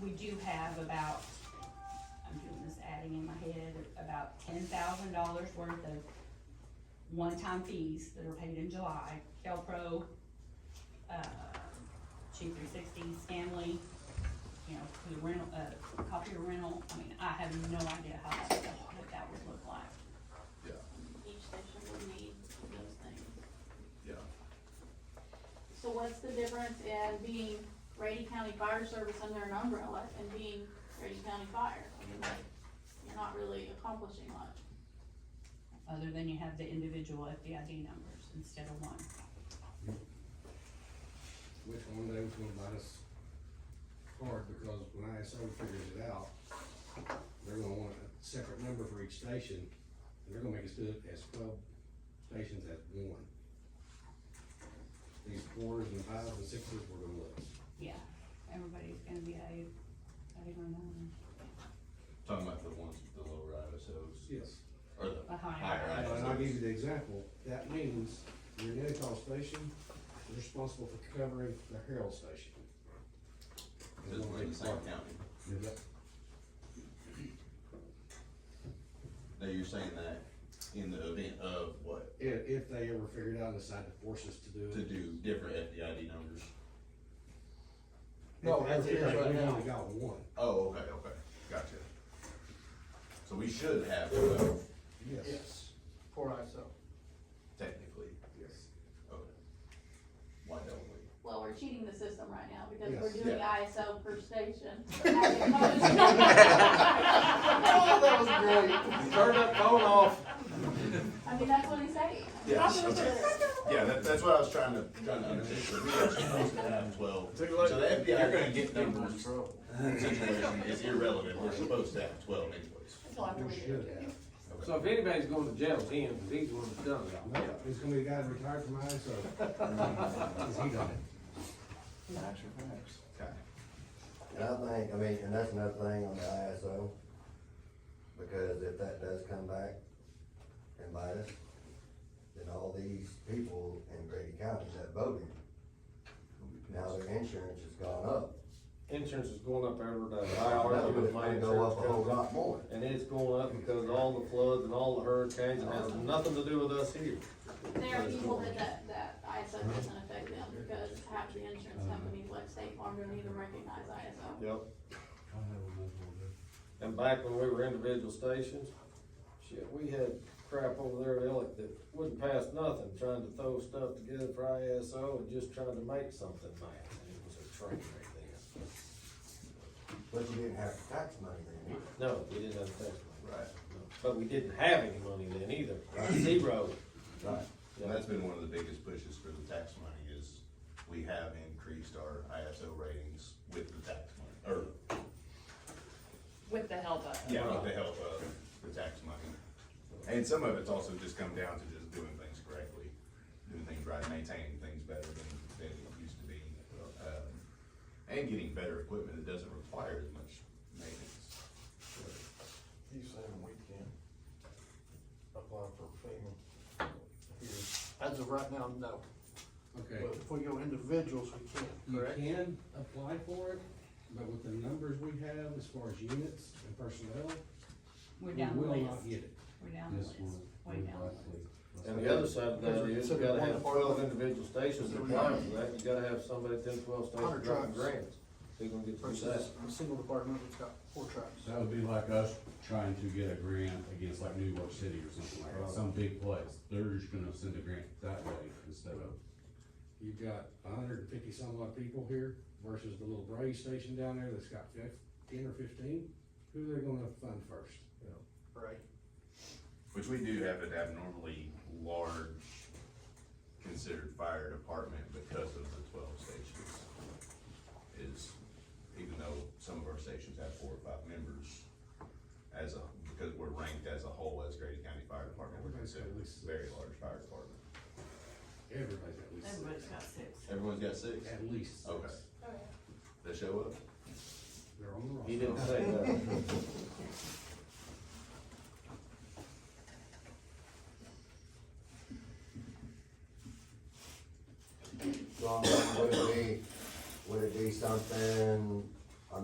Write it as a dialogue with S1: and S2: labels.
S1: we do have about, I'm doing this adding in my head, about ten thousand dollars worth of one-time fees that are paid in July, Kelpro, uh, two three sixty, Stanley, you know, the rental, uh, copier rental, I mean, I have no idea how that, what that would look like.
S2: yeah,
S3: Each station will need those things.
S2: yeah.
S3: So what's the difference in being Grady County Fire Service under an umbrella and being Grady County Fire? I mean, like, you're not really accomplishing much.
S1: other than you have the individual FDID numbers instead of one.
S4: which one day was gonna bite us hard, because when ISO figures it out, they're gonna want a separate number for each station, and they're gonna make us do it as twelve stations as one. These fours and fives and sixes, we're gonna lose.
S1: Yeah, everybody's gonna be a, I don't know,
S2: Talking about the ones, with the lower ISOs,
S4: Yes.
S2: or the
S1: a
S2: higher
S1: higher.
S4: And I'll give
S2: ISOs.
S4: you the example, that means your Nettle station is responsible for covering the Herald station.
S2: Because we're in the same county.
S4: Yep.
S2: Now, you're saying that in the event of what,
S4: If, if they ever figure it out and decide to force us to do it.
S2: to do different FDID numbers?
S4: No, that's it right now. We got one,
S2: Oh, okay, okay, gotcha. So we should have twelve
S4: yes.
S5: Yes, for ISO.
S2: technically,
S4: Yes.
S2: okay. Why don't we?
S3: Well, we're cheating the system right now because
S4: Yes.
S3: we're doing
S2: Yeah.
S3: ISO per station.
S5: Oh, that was great. Turn that phone off.
S3: I mean, that's what he's saying.
S2: Yes, Yeah, that, that's what I was trying to, trying to understand, we are supposed to have twelve. So the
S5: You're
S2: FDID
S5: gonna get
S2: numbers
S5: numbers. Trouble.
S2: situation is irrelevant, we're supposed to have twelve anyways.
S3: Until after
S4: We
S3: we
S4: should
S3: do.
S4: have.
S6: So if anybody's going to jail, it's him, 'cause he's the one that's done it all.
S4: No, it's gonna be a guy that retired from ISO. Cause he done it.
S7: Facts are facts.
S2: Okay.
S7: And I think, I mean, and that's another thing on the ISO, because if that does come back and bite us, then all these people in Grady County that voted, now their insurance has gone up.
S6: Insurance is going up every day. I
S7: Now,
S6: argue
S7: it's
S6: with my
S7: gonna go
S6: insurance
S7: up a whole
S6: company.
S7: lot more.
S6: And it's going up because of all the floods and all the hurricanes, and has nothing to do with us here.
S3: There are people that, that, that ISO doesn't affect them because half the insurance companies like State Farm don't even recognize ISO.
S6: Yep. And back when we were individual stations, shit, we had crap over there, Ellick, that wouldn't pass nothing, trying to throw stuff together for ISO and just trying to make something back. And It was a train right there.
S7: But you didn't have tax money then either.
S6: No, we didn't have tax money.
S2: Right.
S6: But we didn't have any money then either, zero.
S2: Right. And that's been one of the biggest pushes for the tax money is we have increased our ISO ratings with the tax money, or
S8: With the help of.
S2: Yeah, with the help of the tax money. And some of it's also just come down to just doing things correctly, doing things right, maintaining things better than, than it used to be. um, And getting better equipment that doesn't require as much maintenance.
S5: You saying we can apply for FEMA here? As of right now, no,
S4: Okay,
S5: but if we go individuals, we can,
S4: you
S5: correct?
S4: can apply for it, but with the numbers we have as far as units and personnel,
S1: We're
S4: we
S1: down the
S4: will
S1: list,
S4: not get it.
S1: we're down the list, way down the list.
S6: And the other side of that is, you gotta have twelve individual stations applying for that, you gotta have somebody at ten, twelve stations
S5: Hundred
S6: dropping
S5: jobs.
S6: grants. They're gonna get through that.
S5: Versus a single department that's got four trucks.
S9: That would be like us trying to get a grant against like New York City or something like that, some big place, they're just gonna send a grant that way instead of.
S4: You've got a hundred and fifty some odd people here versus the little Bray station down there that's got fifteen or fifteen. Who they are gonna fund first?
S5: Right.
S2: Which we do have an abnormally large considered fire department because of the twelve stations. Is, even though some of our stations have four or five members, as a, because we're ranked as a whole as Grady County Fire Department, we're considered a very large fire department.
S4: Everybody's at least six.
S1: Everybody's got six.
S2: Everyone's got six?
S4: At least six.
S2: Okay. They show up?
S4: They're on the roster.
S6: He didn't say that.